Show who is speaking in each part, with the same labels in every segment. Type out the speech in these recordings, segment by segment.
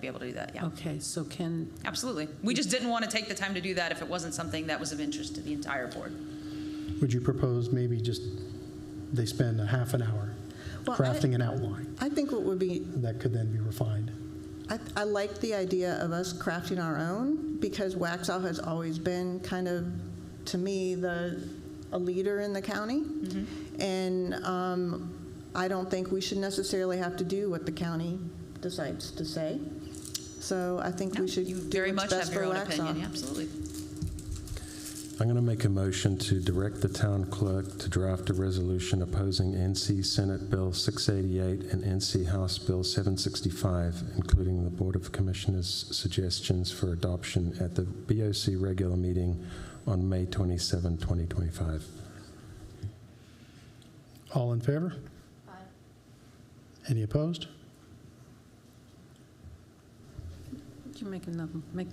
Speaker 1: be able to do that, yeah.
Speaker 2: Okay, so can,
Speaker 1: Absolutely. We just didn't want to take the time to do that if it wasn't something that was of interest to the entire board.
Speaker 3: Would you propose maybe just, they spend a half an hour
Speaker 4: Well, I-
Speaker 3: crafting an outline
Speaker 4: I think what would be,
Speaker 3: that could then be refined?
Speaker 4: I, I like the idea of us crafting our own because Waxaw has always been kind of, to me, the, a leader in the county.
Speaker 1: Mm-hmm.
Speaker 4: And um, I don't think we should necessarily have to do what the county decides to say. So I think
Speaker 1: No,
Speaker 4: we should
Speaker 1: you
Speaker 4: do
Speaker 1: very
Speaker 4: what's
Speaker 1: much have
Speaker 4: best for
Speaker 1: your own opinion, yeah,
Speaker 4: Waxaw.
Speaker 1: absolutely.
Speaker 5: I'm going to make a motion to direct the town clerk to draft a resolution opposing NC Senate Bill 688 and NC House Bill 765, including the Board of Commissioners' suggestions for adoption at the BOC regular meeting on May 27, 2025.
Speaker 3: All in favor? Any opposed?
Speaker 2: you make another, make,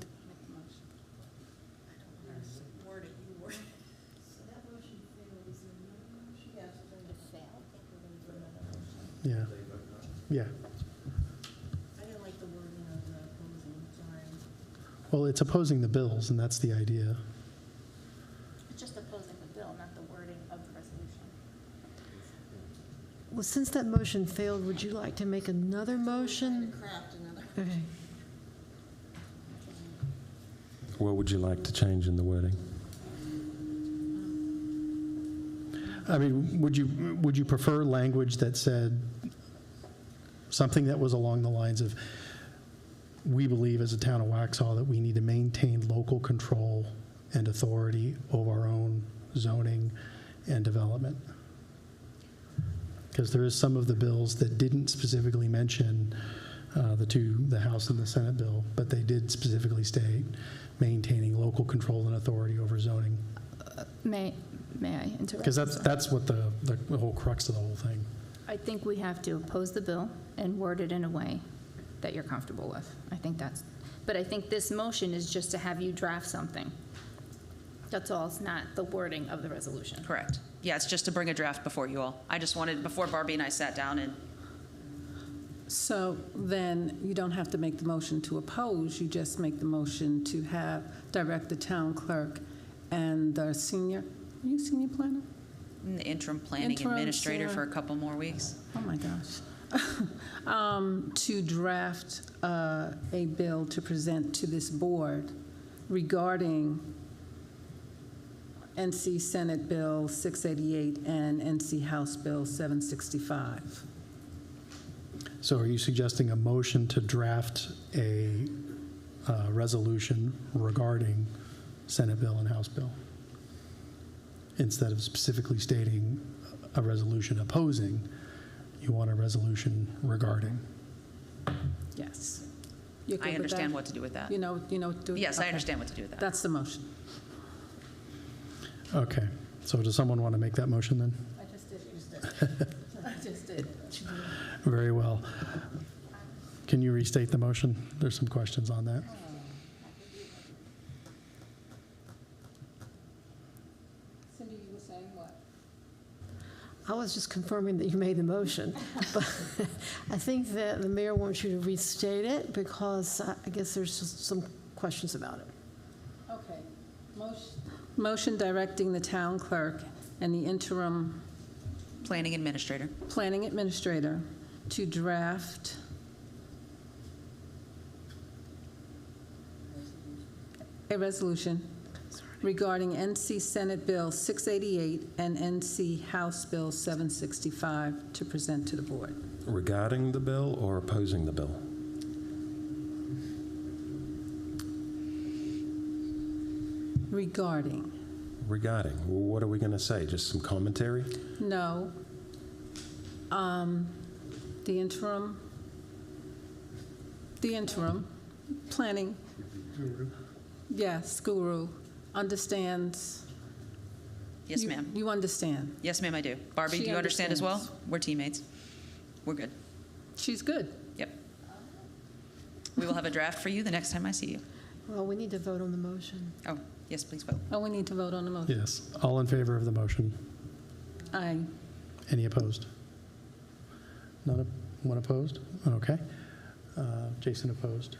Speaker 3: Yeah. Yeah. Well, it's opposing the bills, and that's the idea.
Speaker 6: It's just opposing the bill, not the wording of the resolution.
Speaker 7: Well, since that motion failed, would you like to make another motion? Okay.
Speaker 5: What would you like to change in the wording?
Speaker 3: I mean, would you, would you prefer language that said something that was along the lines of, we believe as a town of Waxhaw that we need to maintain local control and authority over our own zoning and development? Because there is some of the bills that didn't specifically mention uh, the two, the House and the Senate bill, but they did specifically state maintaining local control and authority over zoning.
Speaker 8: May, may I interrupt?
Speaker 3: Because that's, that's what the, the the whole crux of the whole thing.
Speaker 8: I think we have to oppose the bill and word it in a way that you're comfortable with. I think that's, but I think this motion is just to have you draft something. That's all, it's not the wording of the resolution.
Speaker 1: Correct. Yeah, it's just to bring a draft before you all. I just wanted, before Barbie and I sat down and
Speaker 2: so then you don't have to make the motion to oppose, you just make the motion to have, direct the town clerk and the senior, are you senior planner?
Speaker 1: the interim planning
Speaker 2: Interim,
Speaker 1: administrator for a
Speaker 2: Sarah.
Speaker 1: couple more weeks.
Speaker 2: Oh, my gosh. Um, To draft uh, a bill to present to this board regarding NC Senate Bill 688 and NC House Bill 765.
Speaker 3: So are you suggesting a motion to draft a uh, resolution regarding Senate bill and House bill? Instead of specifically stating a resolution opposing, you want a resolution regarding?
Speaker 2: Yes. You're good
Speaker 1: I
Speaker 2: with
Speaker 1: understand
Speaker 2: that?
Speaker 1: what to do with that.
Speaker 2: You know, you know. do-
Speaker 1: Yes, I
Speaker 2: okay.
Speaker 1: understand what to do with that.
Speaker 2: That's the motion.
Speaker 3: Okay, so does someone want to make that motion then? I just did. I just did. Very well. Can you restate the motion? There's some questions on that.
Speaker 7: I was just confirming that you made the motion. But I think that the mayor wants you to restate it because I I guess there's just some questions about it.
Speaker 2: Okay. Motion directing the town clerk and the interim
Speaker 1: Planning administrator.
Speaker 2: planning administrator to draft a resolution regarding NC Senate Bill 688 and NC House Bill 765 to present to the board.
Speaker 5: Regarding the bill or opposing the bill?
Speaker 2: Regarding,
Speaker 5: Regarding, Well, what are we going to say? Just some commentary?
Speaker 2: no, um, the interim, the interim planning, yes, guru, understands
Speaker 1: Yes,
Speaker 2: You-
Speaker 1: ma'am.
Speaker 2: You understand.
Speaker 1: Yes, ma'am, I do. Barbie,
Speaker 2: She
Speaker 1: do you understand as well?
Speaker 2: understands.
Speaker 1: We're teammates. We're good.
Speaker 2: She's good.
Speaker 1: Yep. We will have a draft for you the next time I see you.
Speaker 7: Well, we need to vote on the motion.
Speaker 1: Oh, yes, please vote.
Speaker 2: Oh, we need to vote on the motion.
Speaker 3: Yes, all in favor of the motion?
Speaker 2: Aye.
Speaker 3: Any opposed? None, op- one opposed? Okay. Uh, Jason opposed.